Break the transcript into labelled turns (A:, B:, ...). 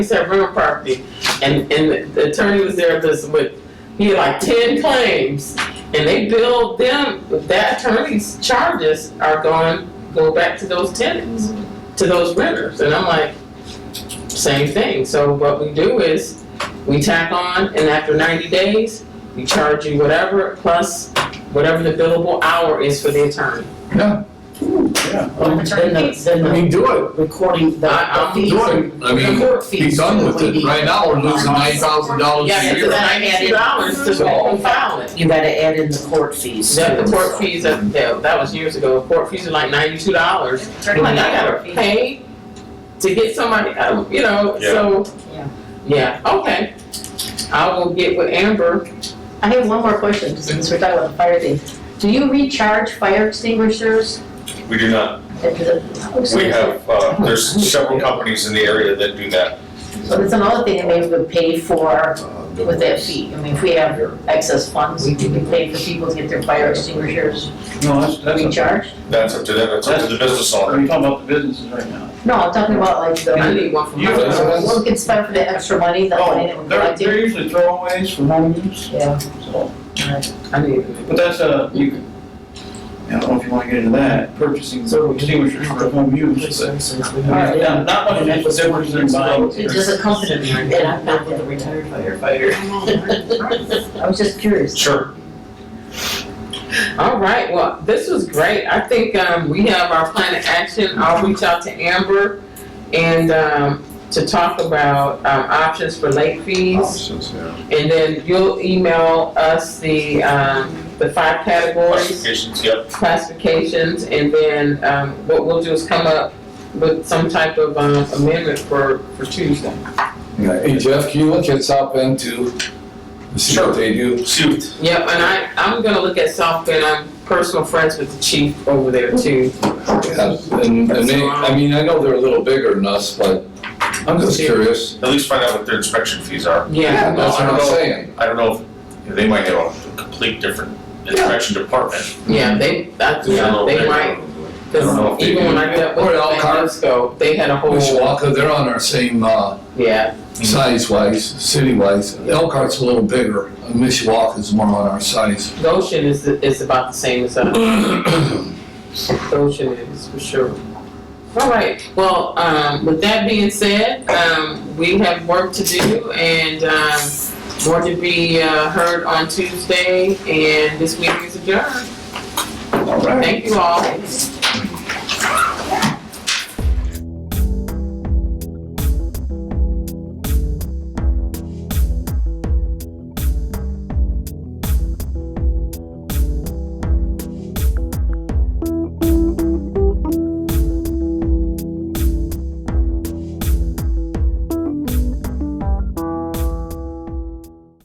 A: said real property, and, and the attorney was there this with, he had like ten claims, and they billed them, that attorney's charges are gone, go back to those tenants, to those renters, and I'm like, same thing, so what we do is, we tack on, and after ninety days, we charge you whatever, plus whatever the billable hour is for the attorney.
B: Well, Then the, then
C: I
B: the
C: mean, do it,
B: recording, the-
A: I-
B: the
A: I'm
B: fees.
C: doing
B: and-
D: I mean,
B: the court
D: be
B: fees Uh,
D: done with
B: that we
D: it.
B: need.
D: Right now, we're losing nine thousand dollars
A: Yeah,
D: a
A: it's
D: year.
A: ninety-two dollars to go and file it.
B: You gotta add in the court fees.
A: The, the court fees, are- yeah, that was years ago, court fees are like ninety-two dollars. I'm like, I gotta pay to get somebody, uh, you know, so.
B: Yeah.
A: Yeah, okay. I will get with Amber.
E: I have one more question, since we're talking about the fire thing. Do you recharge fire extinguishers?
F: We do not.
E: at the-
F: We have, uh, there's several companies in the area that do that.
E: So that's another thing that maybe we pay for with that fee. I mean, if we have excess funds, we can pay for people to get their fire extinguishers
G: No, that's, that's, a-
E: recharged.
F: That's up to them, it's up to the business
G: we're
F: owner.
G: talking about the businesses right now.
E: No, I'm talking about like
A: I
E: the,
A: need one for
G: You-
A: my.
E: what we can spend for the extra money, the money that
G: Oh,
E: we're
G: they're,
E: collecting.
G: they're usually throwaways for home use,
E: Yeah,
G: so,
A: I need.
G: but that's a, you can, I don't know if you wanna get into that, purchasing extinguishers for home use, but.
E: Alright.
G: Not, not much of a difference in buying.
E: it just accompanied me, and I'm not a retired firefighter. I was just curious.
F: Sure.
A: All right, well, this was great. I think, um, we have our plan of action. I'll reach out to Amber and, um, to talk about, um, options for late fees. And then you'll email us the, um, the five categories,
F: Classifications, yep.
A: classifications, and then, um, what we'll do is come up with some type of, um, amendment for, for Tuesday.
C: Hey Jeff, can you look us up into, see
F: Sure.
C: what they do?
F: Suit.
A: Yep, and I, I'm gonna look at Southfield, I'm personal friends with the chief over there too.
C: Uh, And, and they, I mean, I know they're a little bigger than us, but I'm just curious.
F: At least find out what their inspection fees are.
A: Yeah,
C: Yeah, that's what I'm saying.
F: I don't know if, they might have a complete different inspection department.
A: yeah, they, that's,
F: I
A: yeah,
F: don't know if
A: they
F: do.
A: might,
F: I don't know if
A: cause
F: they
A: even
F: do.
A: when I got with
C: Or
A: them
C: Elkhart.
A: years ago, they had a whole,
C: Mishawaka, they're on our same, uh,
A: yeah,
C: size-wise, city-wise. Elkhart's a little bigger, Mishawaka's more on our size.
A: Goshen is, is about the same as us. Goshen is, for sure. All right, well, um, with that being said, um, we have work to do and, um, more to be, uh, heard on Tuesday, and this meeting is adjourned.
G: All right.
A: Thank you all.